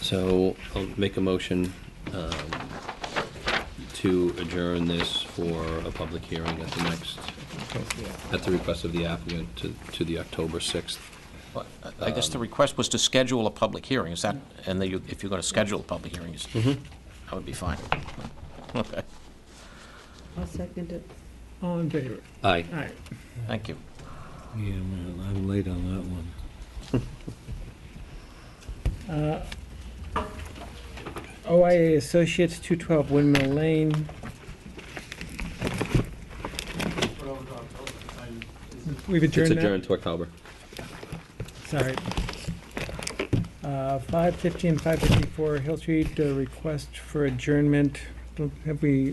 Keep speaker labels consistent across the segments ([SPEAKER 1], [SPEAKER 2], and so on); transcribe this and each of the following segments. [SPEAKER 1] So I'll make a motion um, to adjourn this for a public hearing at the next, at the request of the applicant to, to the October 6th.
[SPEAKER 2] Well, I I guess the request was to schedule a public hearing, is that, and that you- if you're going to schedule a public hearing, is- that would be fine. Okay,
[SPEAKER 3] I'll second it.
[SPEAKER 4] All in favor?
[SPEAKER 1] Aye.
[SPEAKER 4] All right.
[SPEAKER 2] thank you.
[SPEAKER 5] Yeah, man, I'm late on that one.
[SPEAKER 4] OIA Associates, 212 Windmill Lane. We've
[SPEAKER 1] It's
[SPEAKER 4] adjourned that?
[SPEAKER 1] adjourned to October.
[SPEAKER 4] Sorry. Uh, 550 and 554 Hill Street, uh, request for adjournment. Don't- Have we,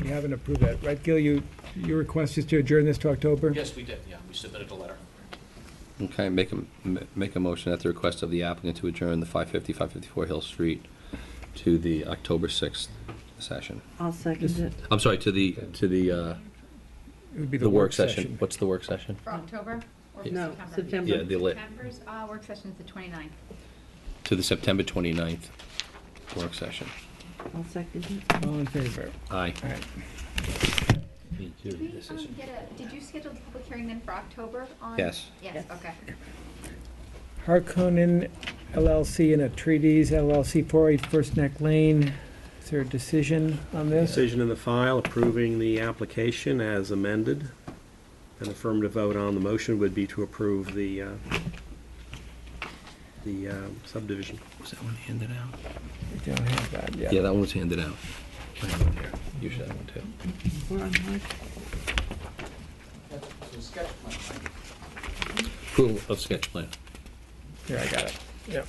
[SPEAKER 4] we haven't approved that, right, Gil? You, your request is to adjourn this to October?
[SPEAKER 2] Yes, we did, yeah, we submitted a letter.
[SPEAKER 1] Okay, make a, m- make a motion at the request of the applicant to adjourn the 550, 554 Hill Street to the October 6th session.
[SPEAKER 3] I'll second it.
[SPEAKER 1] I'm sorry, to the, to the, uh,
[SPEAKER 4] It would be
[SPEAKER 1] the work session. What's the work session?
[SPEAKER 6] For October or for
[SPEAKER 3] No,
[SPEAKER 6] September?
[SPEAKER 3] September.
[SPEAKER 1] Yeah, the lit,
[SPEAKER 6] September's uh, work session is the 29th.
[SPEAKER 1] to the September 29th work session.
[SPEAKER 3] I'll second it.
[SPEAKER 4] All in favor?
[SPEAKER 1] Aye.
[SPEAKER 4] All right.
[SPEAKER 1] Me
[SPEAKER 6] Did we
[SPEAKER 1] This is-
[SPEAKER 6] um, get a, did you schedule the public hearing then for October on?
[SPEAKER 1] Yes.
[SPEAKER 6] Yes,
[SPEAKER 3] Yes.
[SPEAKER 6] okay.
[SPEAKER 4] Harkonnen LLC and Atreides LLC, 408 First Neck Lane. Is there a decision on this?
[SPEAKER 7] Decision in the file approving the application as amended. An affirmative vote on the motion would be to approve the, uh, the uh, subdivision.
[SPEAKER 1] Was that one handed out?
[SPEAKER 4] We Don't have that yet.
[SPEAKER 1] Yeah, that one was handed out. I have it here. You should have one too.
[SPEAKER 3] We're on hard.
[SPEAKER 1] Approval of sketch plan.
[SPEAKER 4] Here, I got it. Yep.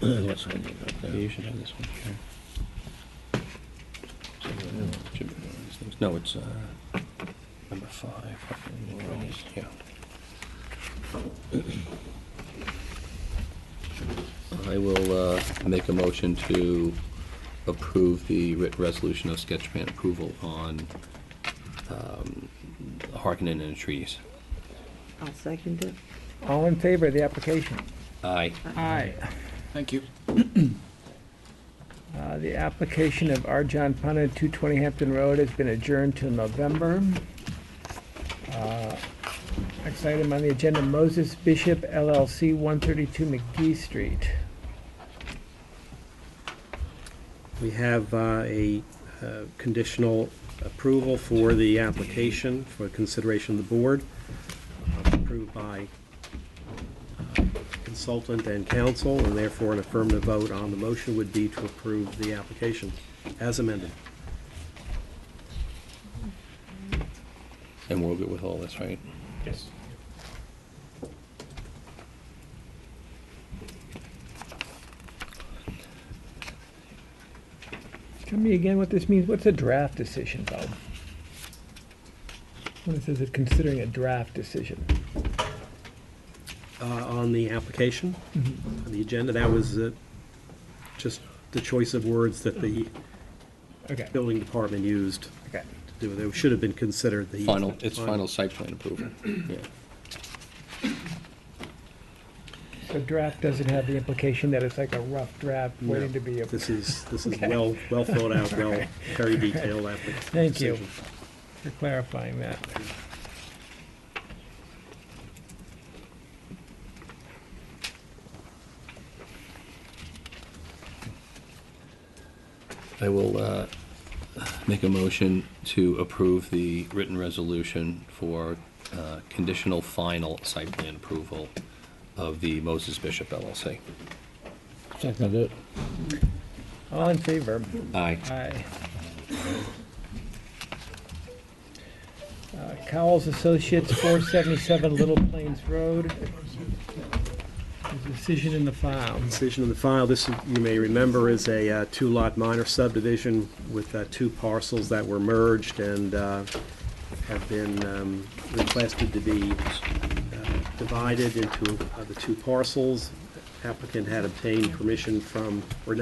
[SPEAKER 1] Yeah, you should have this one here. Should be one of these things. No, it's, uh, number five. fucking rules. Yeah. I will, uh, make a motion to approve the written resolution of sketch plan approval on, um, Harkinen and Trees.
[SPEAKER 3] I'll second it.
[SPEAKER 4] All in favor of the application?
[SPEAKER 1] Aye.
[SPEAKER 4] Aye.
[SPEAKER 2] Thank you.
[SPEAKER 4] Uh, The application of R. John Punna, 220 Hampton Road, has been adjourned till November. Uh, Next item on the agenda, Moses Bishop LLC, 132 McGee Street.
[SPEAKER 7] We have uh, a uh, conditional approval for the application for consideration of the board, uh, approved by uh, consultant and counsel, and therefore an affirmative vote on the motion would be to approve the application as amended.
[SPEAKER 1] And we're good with all this, right?
[SPEAKER 7] Yes.
[SPEAKER 4] Tell me again what this means. What's a draft decision, Bob? When it says it considering a draft decision.
[SPEAKER 7] uh, on the application,
[SPEAKER 4] Mm-hmm.
[SPEAKER 7] on the agenda. That was uh, just the choice of words that the
[SPEAKER 4] Okay,
[SPEAKER 7] building department used to
[SPEAKER 4] okay.
[SPEAKER 7] do. They should have been considered the.
[SPEAKER 1] Final, it's final site plan approval. Yeah.
[SPEAKER 4] So draft doesn't have the implication that it's like a rough draft
[SPEAKER 7] No,
[SPEAKER 4] waiting to be approved.
[SPEAKER 7] This is, this is
[SPEAKER 4] Okay.
[SPEAKER 7] well, well thought out, well, very detailed application.
[SPEAKER 4] Thank you. for clarifying that.
[SPEAKER 1] I will uh, make a motion to approve the written resolution for uh, conditional final site plan approval of the Moses Bishop LLC.
[SPEAKER 5] Second it.
[SPEAKER 4] All in favor?
[SPEAKER 1] Aye.
[SPEAKER 4] Aye. Uh, Cowles Associates, 477 Little Plains Road. There's a Decision in the file.
[SPEAKER 7] Decision in the file, this, you may remember, is a uh, two-lot minor subdivision with uh, two parcels that were merged and uh, have been um, requested to be uh, divided into uh, the two parcels. Applicant had obtained permission from, or